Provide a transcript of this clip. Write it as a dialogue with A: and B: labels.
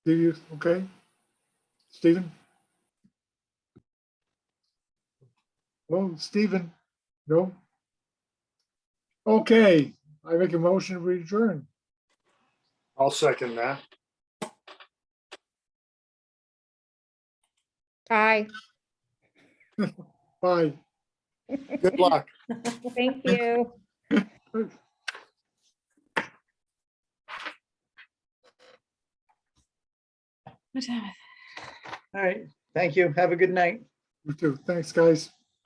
A: Do you, okay? Stephen? Well, Stephen, no? Okay, I make a motion to adjourn.
B: I'll second that.
C: Aye,
A: Bye.
B: Good luck.
C: thank you.
D: All right, thank you. Have a good night.
A: You too. Thanks, guys.